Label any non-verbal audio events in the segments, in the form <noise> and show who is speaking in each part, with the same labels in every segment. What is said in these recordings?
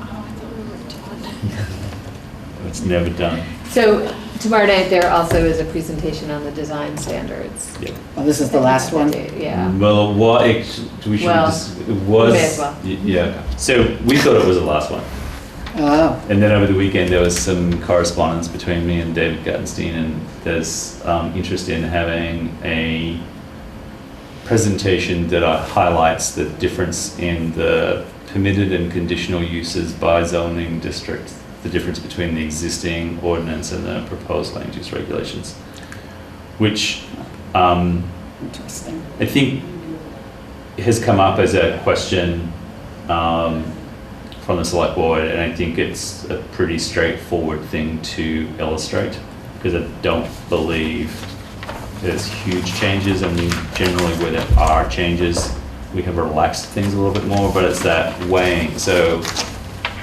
Speaker 1: Oh,
Speaker 2: It's never done.
Speaker 3: So tomorrow night, there also is a presentation on the design standards.
Speaker 2: Yeah.
Speaker 4: Oh, this is the last one?
Speaker 3: Yeah.
Speaker 2: Well, what, ex- we should,
Speaker 3: Well,
Speaker 2: dis- it was.
Speaker 3: may as well.
Speaker 2: y- Yeah, so we thought it was the last one.
Speaker 4: Oh,
Speaker 2: And then over the weekend, there was some correspondence between me and David Guttenstein, and there's um, interest in having a presentation that uh, highlights the difference in the permitted and conditional uses by zoning district, the difference between the existing ordinance and the proposed land use regulations, which um,
Speaker 4: interesting.
Speaker 2: I think has come up as a question um, from the select board, and I think it's a pretty straightforward thing to illustrate, because I don't believe there's huge changes, I mean, generally where there are changes, we have relaxed things a little bit more, but it's that weighing, so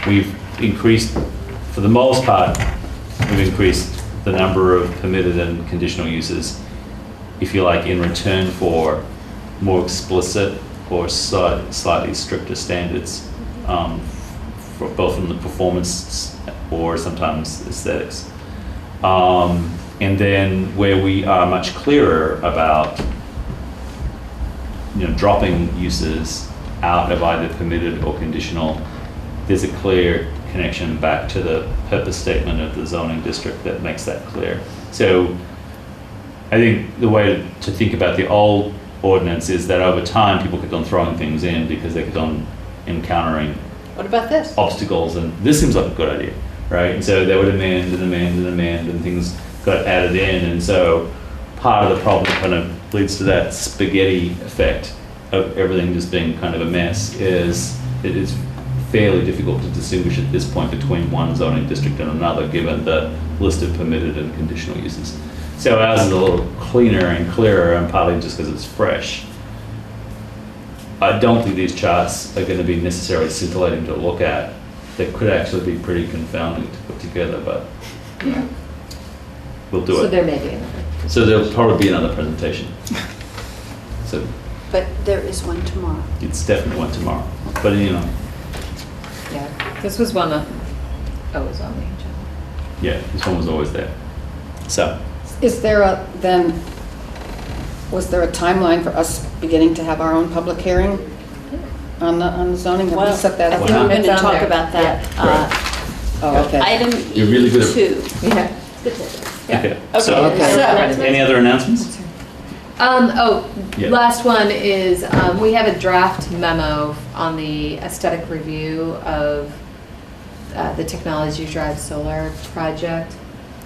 Speaker 2: we've increased, for the most part, we've increased the number of permitted and conditional uses, if you like, in return for more explicit or sli- slightly stricter standards, um, for both in the performance or sometimes aesthetics. Um, and then where we are much clearer about, you know, dropping uses out of either permitted or conditional, there's a clear connection back to the purpose statement of the zoning district that makes that clear. So I think the way to think about the old ordinance is that over time, people kept on throwing things in because they kept on encountering
Speaker 4: Mm-hmm.
Speaker 3: What about this?
Speaker 2: obstacles, and this seems like a good idea, right? And so they would amend and amend and amend, and things got added in, and so part of the problem kind of leads to that spaghetti effect of everything just being kind of a mess. Is it is fairly difficult to distinguish at this point between one zoning district and another, given the list of permitted and conditional uses. So ours is a little cleaner and clearer, and partly just because it's fresh. I don't think these charts are going to be necessarily scintillating to look at. They could actually be pretty confounding to put together, but we'll do
Speaker 3: So
Speaker 2: it.
Speaker 3: there may be another.
Speaker 2: So there'll probably be another
Speaker 3: <laughs>
Speaker 2: presentation. So
Speaker 1: But there is one tomorrow.
Speaker 2: it's definitely one tomorrow, but you know,
Speaker 3: Yeah, this was one of, oh, it was on the agenda.
Speaker 2: yeah, this one was always there. So,
Speaker 4: Is there a, then, was there a timeline for us beginning to have our own public hearing on the, on the zoning? Have we
Speaker 1: Well,
Speaker 4: set that
Speaker 1: I
Speaker 4: up?
Speaker 1: think
Speaker 2: Why
Speaker 1: we're
Speaker 2: not?
Speaker 1: going
Speaker 3: It's
Speaker 1: to
Speaker 3: on
Speaker 1: talk
Speaker 3: there.
Speaker 1: about that.
Speaker 2: Yeah.
Speaker 4: Oh,
Speaker 1: Uh,
Speaker 4: okay.
Speaker 1: Item
Speaker 2: You're really good at-
Speaker 1: E2.
Speaker 3: Yeah.
Speaker 2: okay.
Speaker 1: Okay,
Speaker 2: So,
Speaker 1: so-
Speaker 2: any other announcements?
Speaker 3: Um, oh,
Speaker 2: Yeah.
Speaker 3: last one is, um, we have a draft memo on the aesthetic review of, uh, the Technology Drive Solar Project.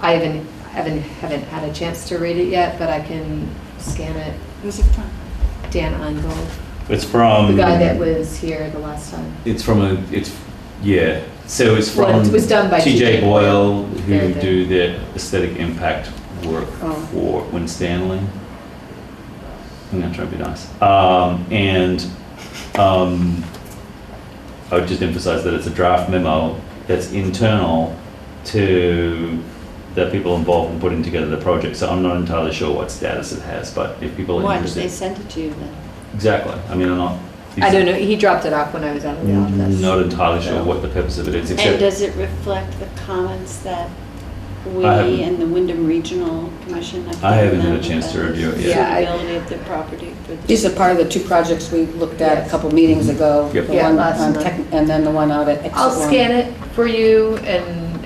Speaker 3: I haven't, haven't, haven't had a chance to read it yet, but I can scan it.
Speaker 1: Who's it from?
Speaker 3: Dan Ungold,
Speaker 2: It's from.
Speaker 3: the guy that was here the last time.
Speaker 2: It's from a, it's, yeah, so it's
Speaker 3: Well,
Speaker 2: from.
Speaker 3: it was done by TJ
Speaker 2: TJ Boyle,
Speaker 3: They're
Speaker 2: who
Speaker 3: the-
Speaker 2: do the aesthetic impact work
Speaker 4: Oh.
Speaker 2: for Win Stanley. I'm gonna try to be nice. Um, and, um, I would just emphasize that it's a draft memo that's internal to the people involved in putting together the project, so I'm not entirely sure what status it has, but if people are
Speaker 1: Why did
Speaker 2: interested.
Speaker 1: they send it to you then?
Speaker 2: Exactly, I mean, I'm not.
Speaker 3: I don't know, he dropped it off when I was out of
Speaker 2: Mm,
Speaker 3: the office.
Speaker 2: Not entirely sure what the purpose of it is,
Speaker 1: Mm. And
Speaker 2: except
Speaker 1: does it reflect the comments that we
Speaker 2: I haven't-
Speaker 1: and the Wyndham Regional Commission have given them?
Speaker 2: I haven't had a chance to
Speaker 1: about
Speaker 2: review it
Speaker 1: the
Speaker 3: yet. Yeah, I-
Speaker 1: Suitability of the property for the.
Speaker 4: These are part of the two projects we looked at a couple meetings ago.
Speaker 2: Yep.
Speaker 4: the
Speaker 3: Yeah,
Speaker 4: one
Speaker 3: last
Speaker 4: on
Speaker 3: month.
Speaker 4: Tech- And then the one out at Exit
Speaker 3: I'll
Speaker 4: One.
Speaker 3: scan it for you and,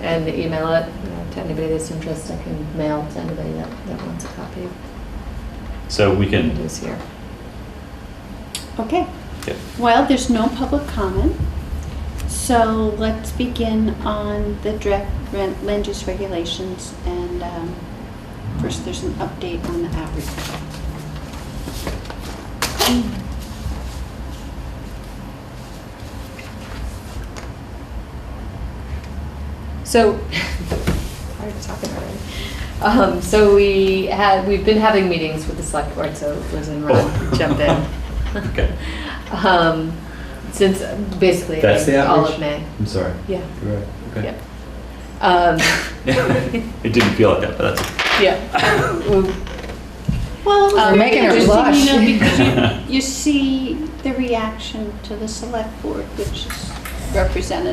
Speaker 3: and email it you know, to anybody that's interested. I can mail to anybody that, that wants a copy of
Speaker 2: so we
Speaker 3: what
Speaker 2: can.
Speaker 3: is here.
Speaker 1: Okay,
Speaker 2: Yep.
Speaker 1: well, there's no public comment, so let's begin on the draft ren- land use regulations, and um, first, there's an update on the outreach.
Speaker 3: So, <laughs> I was talking already. Um, so we had, we've been having meetings with the select board, so Liz and Ron
Speaker 2: Oh.
Speaker 3: jump in.
Speaker 2: <laughs> Okay.
Speaker 3: Um, since basically
Speaker 2: That's the
Speaker 3: all
Speaker 2: outreach?
Speaker 3: of May.
Speaker 2: I'm sorry.
Speaker 3: Yeah,
Speaker 2: You're right. Okay.
Speaker 3: yep. Um,
Speaker 2: <laughs> It didn't feel like that, but that's,
Speaker 3: yeah. We-
Speaker 1: Well, it was
Speaker 3: You're
Speaker 1: very
Speaker 4: making her
Speaker 1: interesting, you know,
Speaker 2: blush.
Speaker 4: <laughs>
Speaker 1: because you, you see the reaction to the select board, which is represented